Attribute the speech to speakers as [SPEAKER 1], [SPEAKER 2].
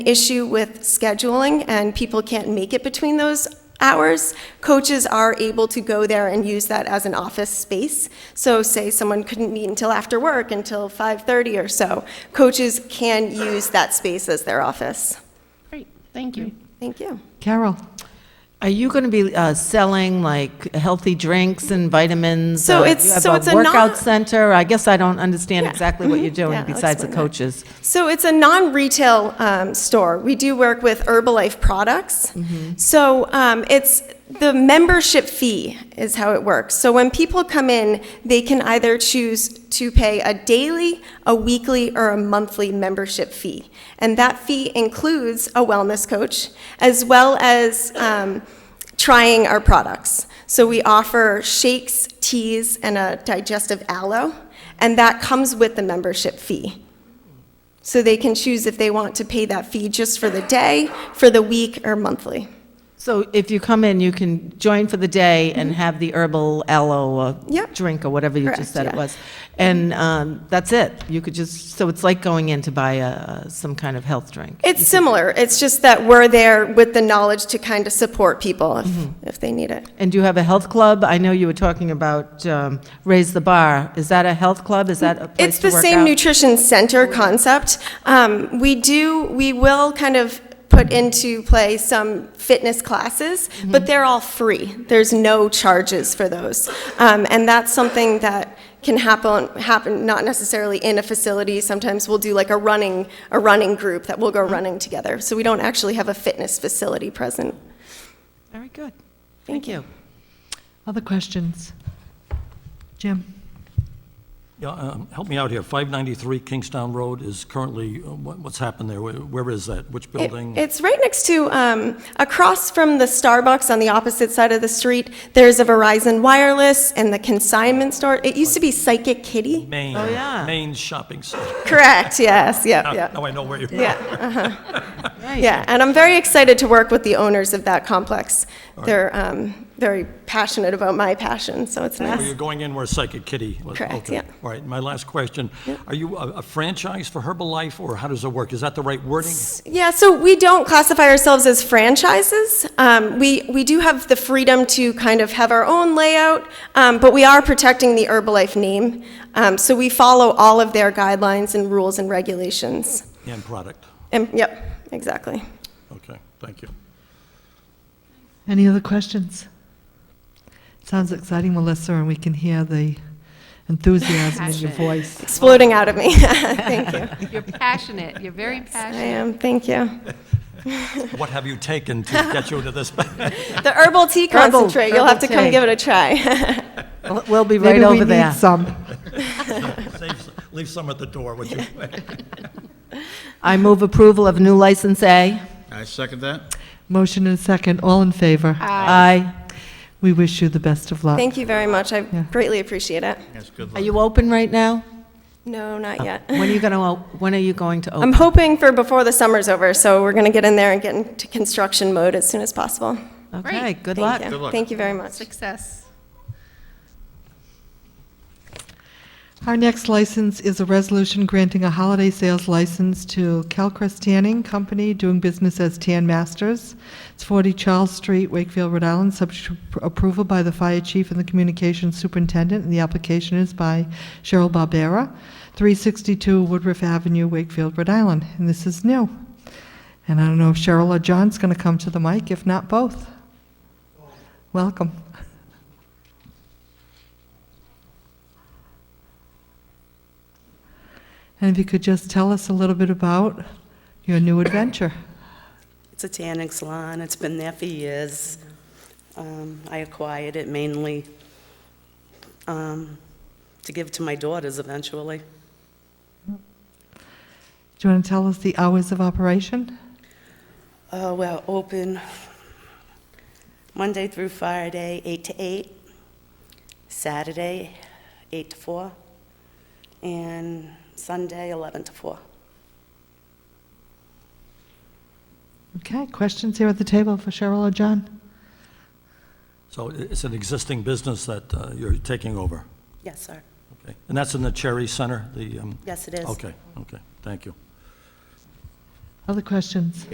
[SPEAKER 1] issue with scheduling and people can't make it between those hours, coaches are able to go there and use that as an office space. So say someone couldn't meet until after work, until 5:30 or so, coaches can use that space as their office.
[SPEAKER 2] Great, thank you.
[SPEAKER 1] Thank you.
[SPEAKER 3] Carol,
[SPEAKER 2] Are you going to be uh, selling like healthy drinks and vitamins?
[SPEAKER 1] So
[SPEAKER 2] Uh,
[SPEAKER 1] it's-
[SPEAKER 2] you have
[SPEAKER 1] so it's a
[SPEAKER 2] a
[SPEAKER 1] non-
[SPEAKER 2] workout center? I guess I don't understand
[SPEAKER 1] Yeah,
[SPEAKER 2] exactly what
[SPEAKER 1] mhm,
[SPEAKER 2] you're
[SPEAKER 1] yeah,
[SPEAKER 2] doing
[SPEAKER 1] I'll
[SPEAKER 2] besides the
[SPEAKER 1] explain that.
[SPEAKER 2] coaches.
[SPEAKER 1] So it's a non-retail um, store. We do work with Herbalife products. So um, it's the membership fee is how it works. So when people come in, they can either choose to pay a daily, a weekly, or a monthly membership fee, and that fee includes a wellness coach as well as. Um, trying our products. So we offer shakes, teas, and a digestive aloe, and that comes with the membership fee. So they can choose if they want to pay that fee just for the day, for the week, or monthly.
[SPEAKER 2] So if you come in, you can join for the day and have the herbal aloe uh,
[SPEAKER 1] Mm-hmm. Yep.
[SPEAKER 2] drink or whatever you
[SPEAKER 1] Correct,
[SPEAKER 2] just said it
[SPEAKER 1] yeah.
[SPEAKER 2] was. And um, that's it. You could just, so it's like going in to buy a- uh, some kind of health drink.
[SPEAKER 1] It's similar, it's just that we're there with the knowledge to kind of support people if, if they need it.
[SPEAKER 2] And do you have a health club? I know you were talking about um, Raise the Bar. Is that a health club? Is that a place
[SPEAKER 1] It's
[SPEAKER 2] to
[SPEAKER 1] the
[SPEAKER 2] work
[SPEAKER 1] same
[SPEAKER 2] out?
[SPEAKER 1] nutrition center concept. Um, we do, we will kind of put into play some fitness classes,
[SPEAKER 2] Mm-hmm.
[SPEAKER 1] but they're all free. There's no charges for those. Um, and that's something that can happen, happen not necessarily in a facility. Sometimes we'll do like a running, a running group that we'll go
[SPEAKER 2] Mm-hmm.
[SPEAKER 1] running together. So we don't actually have a fitness facility present.
[SPEAKER 2] Very good.
[SPEAKER 1] Thank
[SPEAKER 2] Thank you.
[SPEAKER 3] other questions? Jim?
[SPEAKER 4] Yeah, um, help me out here. 593 Kingstown Road is currently, uh, what- what's happened there? Where where is that? Which
[SPEAKER 1] It-
[SPEAKER 4] building?
[SPEAKER 1] It's right next to, um, across from the Starbucks on the opposite side of the street. There's a Verizon Wireless and the consignment store. It used to be Psychic Kitty.
[SPEAKER 4] Main,
[SPEAKER 2] Oh, yeah.
[SPEAKER 4] Main Shopping Center.
[SPEAKER 1] Correct, yes, yeah,
[SPEAKER 4] Now
[SPEAKER 1] yeah.
[SPEAKER 4] now I know where you're
[SPEAKER 1] Yeah,
[SPEAKER 4] going.
[SPEAKER 1] uh-huh,
[SPEAKER 2] Right.
[SPEAKER 1] yeah. And I'm very excited to work with the owners of that complex. They're, um, very passionate about my passion, so it's
[SPEAKER 4] Where
[SPEAKER 1] nice.
[SPEAKER 4] you're going in where Psychic Kitty. was-
[SPEAKER 1] Correct,
[SPEAKER 4] okay.
[SPEAKER 1] yeah.
[SPEAKER 4] All right, my last question. Are you a a franchise for Herbalife, or how does it work? Is that the right wording?
[SPEAKER 1] Yeah, so we don't classify ourselves as franchises. Um, we, we do have the freedom to kind of have our own layout, um, but we are protecting the Herbalife name. Um, so we follow all of their guidelines and rules and regulations.
[SPEAKER 4] And product.
[SPEAKER 1] And, yep, exactly.
[SPEAKER 4] Okay, thank you.
[SPEAKER 3] Any other questions? Sounds exciting, Melissa, and we can hear the enthusiasm in your
[SPEAKER 5] Passion.
[SPEAKER 3] voice.
[SPEAKER 1] Exploding out of me. thank you.
[SPEAKER 5] You're passionate, you're very
[SPEAKER 1] I
[SPEAKER 5] passionate.
[SPEAKER 1] am, thank you.
[SPEAKER 4] What have you taken to get you to this?
[SPEAKER 1] The herbal tea
[SPEAKER 2] Herbal-
[SPEAKER 1] concentrate, you'll have to
[SPEAKER 2] herbal
[SPEAKER 1] come
[SPEAKER 2] tea.
[SPEAKER 1] give it a try.
[SPEAKER 2] We'll- We'll be right
[SPEAKER 3] Maybe we
[SPEAKER 2] over there.
[SPEAKER 3] need some.
[SPEAKER 4] Save- Leave some at the door, would you?
[SPEAKER 2] I move approval of new license A.
[SPEAKER 6] I second that.
[SPEAKER 3] Motion and second, all in favor?
[SPEAKER 2] Aye.
[SPEAKER 3] We wish you the best of luck.
[SPEAKER 1] thank you very much. I
[SPEAKER 3] Yeah.
[SPEAKER 1] greatly appreciate it.
[SPEAKER 6] Yes, good
[SPEAKER 2] Are
[SPEAKER 6] luck.
[SPEAKER 2] you open right now?
[SPEAKER 1] No, not yet.
[SPEAKER 2] Oh, When are you going to, when are you going to
[SPEAKER 1] I'm
[SPEAKER 2] open?
[SPEAKER 1] hoping for before the summer's over, so we're going to get in there and get into construction mode as soon as possible.
[SPEAKER 2] Okay, good
[SPEAKER 1] Thank
[SPEAKER 2] luck.
[SPEAKER 1] you.
[SPEAKER 6] Good luck.
[SPEAKER 1] Thank you very much.
[SPEAKER 5] Success.
[SPEAKER 3] Our next license is a resolution granting a holiday sales license to Calcrest Tanning Company, doing business as Tan Masters. It's 40 Charles Street, Wakefield, Rhode Island, subject to pr- approval by the fire chief and the communications superintendent, and the application is by Cheryl Barbera, 362 Woodruff Avenue, Wakefield, Rhode Island, and this is new. And I don't know if Cheryl or John's going to come to the mic, if not both. Welcome. And if you could just tell us a little bit about your new adventure.
[SPEAKER 7] It's a tanning salon, it's been there for years. Um, I acquired it mainly um, to give to my daughters eventually.
[SPEAKER 3] Do you want to tell us the hours of operation?
[SPEAKER 7] Uh, We're open Monday through Friday, 8 to 8, Saturday, 8 to 4, and Sunday, 11 to 4.
[SPEAKER 3] Okay, questions here at the table for Cheryl or John?
[SPEAKER 4] So it's an existing business that uh, you're taking over?
[SPEAKER 7] Yes, sir.
[SPEAKER 4] Okay, And that's in the Cherry Center, the? um,
[SPEAKER 7] Yes, it is.
[SPEAKER 4] Okay, okay, thank you.
[SPEAKER 3] Other questions?